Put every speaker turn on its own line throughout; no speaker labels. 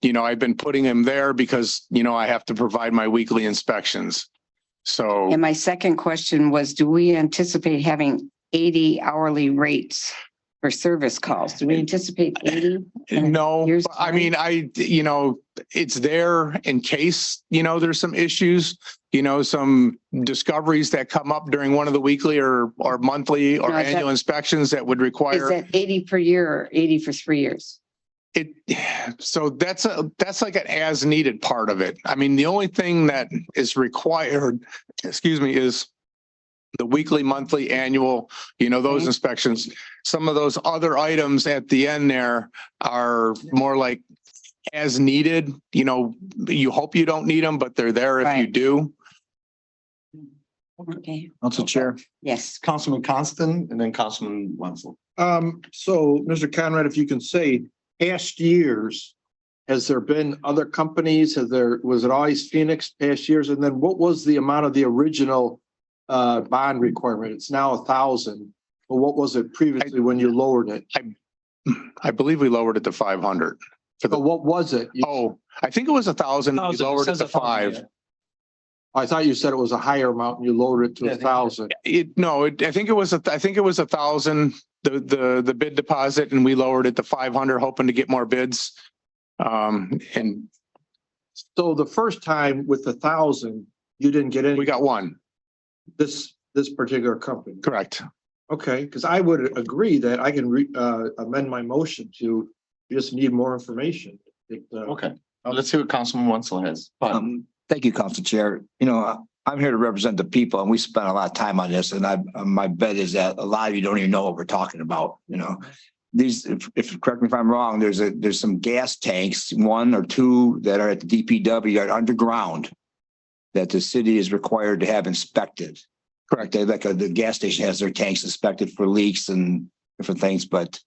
you know, I've been putting him there because, you know, I have to provide my weekly inspections. So,
And my second question was, do we anticipate having eighty hourly rates for service calls? Do we anticipate eighty?
no,
Here's-
I mean, I, you know, it's there in case, you know, there's some issues, you know, some discoveries that come up during one of the weekly or, or monthly or
No, I thought-
annual inspections that would
Is
require
that eighty per year or eighty for three years?
it. So that's a, that's like an as needed part of it. I mean, the only thing that is required, excuse me, is the weekly, monthly, annual, you know, those
Okay.
inspections. Some of those other items at the end there are more like as needed, you know, you hope you don't need them, but they're there if you
Right.
do.
Okay,
Council Chair,
yes.
Councilman Constant and then Councilman Wenzel.
Um, so, Mr. Conrad, if you can say, past years, has there been other companies? Has there, was it always Phoenix past years? And then what was the amount of the original uh, bond requirement? It's now a thousand. But what was it previously when you lowered it?
I believe we lowered it to five hundred.
But what was it? You-
Oh, I think it was a thousand. We lowered it to five.
I thought you said it was a higher amount and you lowered it to
Yeah, I
a
think-
thousand.
It, no, it, I think it was, a I think it was a thousand, the, the, the bid deposit and we lowered it to five hundred, hoping to get more bids. Um, and
So the first time with the thousand, you didn't get
we
any,
got one,
this, this particular company.
correct.
Okay, because I would agree that I can re, uh, amend my motion to we just need more information. It, uh,
Okay, Uh, let's see what Councilman Wenzel has. But
Um, thank you, Council Chair. You know, I- I'm here to represent the people and we spent a lot of time on this and I, uh, my bet is that a lot of you don't even know what we're talking about, you know? These, if, if, correct me if I'm wrong, there's a, there's some gas tanks, one or two that are at the DPW are underground that the city is required to have inspected. Correct. They, like, uh, the gas station has their tanks inspected for leaks and different things, but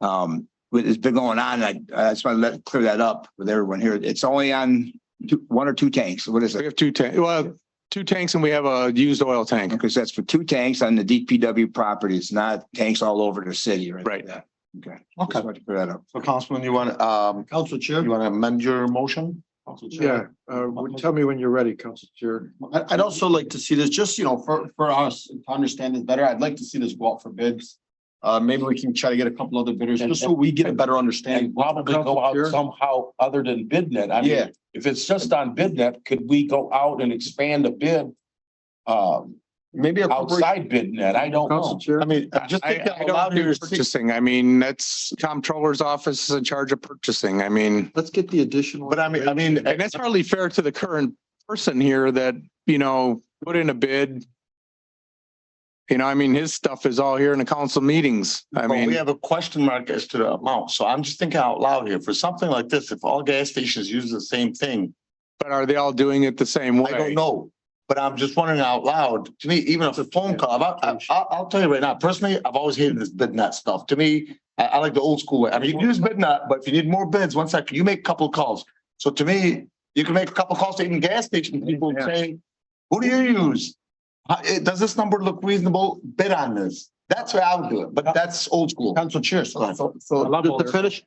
um, it's been going on. I, I just want to let, clear that up with everyone here. It's only on two, one or two tanks. What is
We
it?
have two tanks, well, two tanks and we have a used oil tank.
Because that's for two tanks on the DPW property. It's not tanks all over the city, right?
Right.
Yeah. Okay.
okay,
Just wanted to clear that up.
so Councilman, you want, um,
Council
you
Chair?
want to amend your motion? Council
Yeah, uh, would- tell me when you're ready, Council Chair.
I, I'd also like to see this, just, you know, for, for us to understand this better, I'd like to see this go out for bids. Uh, maybe we can try to get a couple other bidders, just so we get a better understanding.
And probably go out
Sure.
somehow other than BidNet. I
Yeah.
mean, if it's just on BidNet, could we go out and expand a bid? Um,
Maybe a corporate,
outside BidNet, I don't
Council
know.
Chair,
I mean,
I,
just think
I
out
don't
loud here.
do purchasing. I mean, that's comptroller's office is in charge of purchasing. I mean,
let's get the additional.
But I mean, I mean,
and that's hardly fair to the current person here that, you know, put in a bid. You know, I mean, his stuff is all here in the council meetings. I
But
mean.
we have a question mark as to the amount, so I'm just thinking out loud here, for something like this, if all gas stations use the same thing.
But are they all doing it the same way?
I don't know, but I'm just wondering out loud, to me, even if it's a phone call, I, I, I'll, I'll tell you right now, personally, I've always hated this bid net stuff, to me. I, I like the old school way, I mean, you can use bid net, but if you need more bids, one second, you make a couple of calls, so to me, you can make a couple of calls to even gas station people and say, who do you use? Uh, it- does this number look reasonable, bid on this, that's what I would do it, but that's old school.
Council Chair, so, so- so
Just
to
To finish.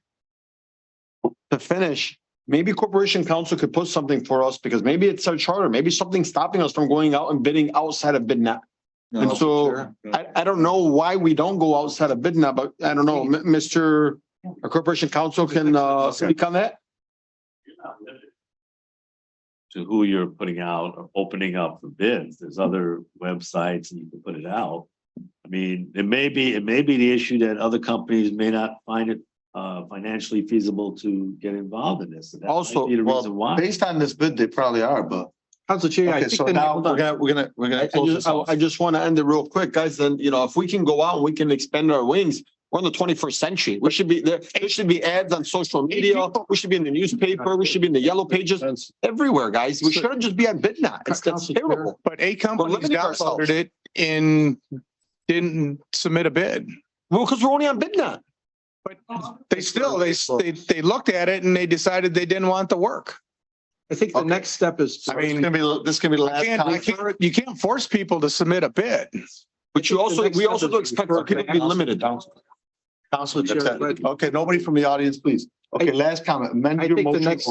To finish, maybe Corporation Council could put something for us because maybe it's our charter, maybe something's stopping us from going out and bidding outside of bid net. And so I, I don't know why we don't go outside of bid now, but I don't know, M- Mr. our Corporation Council can, uh, speak on that?
to who you're putting out or opening up for bids. There's other websites and you can put it out. I mean, it may be, it may be the issue that other companies may not find it uh financially feasible to get involved in this. and that might
Also,
be the
well,
reason why.
Based on this bid, they probably are, but.
Council Chair,
Okay, so now we're gonna, we're gonna, we're
I- I
gonna. close
just,
this
I,
off.
I just want to end it real quick, guys. Then, you know, if we can go out and we can expand our wings, we're in the twenty-first century. We should be there. There should be ads on social media. We should be in the newspaper. We should be in the yellow pages everywhere, guys. We shouldn't just be on BidNet. It's, that's
Council Chair.
terrible.
But eight companies
limiting
downloaded
ourselves.
it and didn't submit a bid.
Well, because we're only on BidNet.
But they still, they, they, they looked at it and they decided they didn't want the work.
I think
the next
step is.
I
It's
mean,
gonna be, this is gonna be the
I
last.
can't, I
comment.
can't, you can't force people to submit a bid.
But you also, we also do expect our people to be limited.
Councilor,
Chair,
Patel.
but-
okay, nobody from the audience, please. Okay, last comment, amend
I
your
think the
motion.
next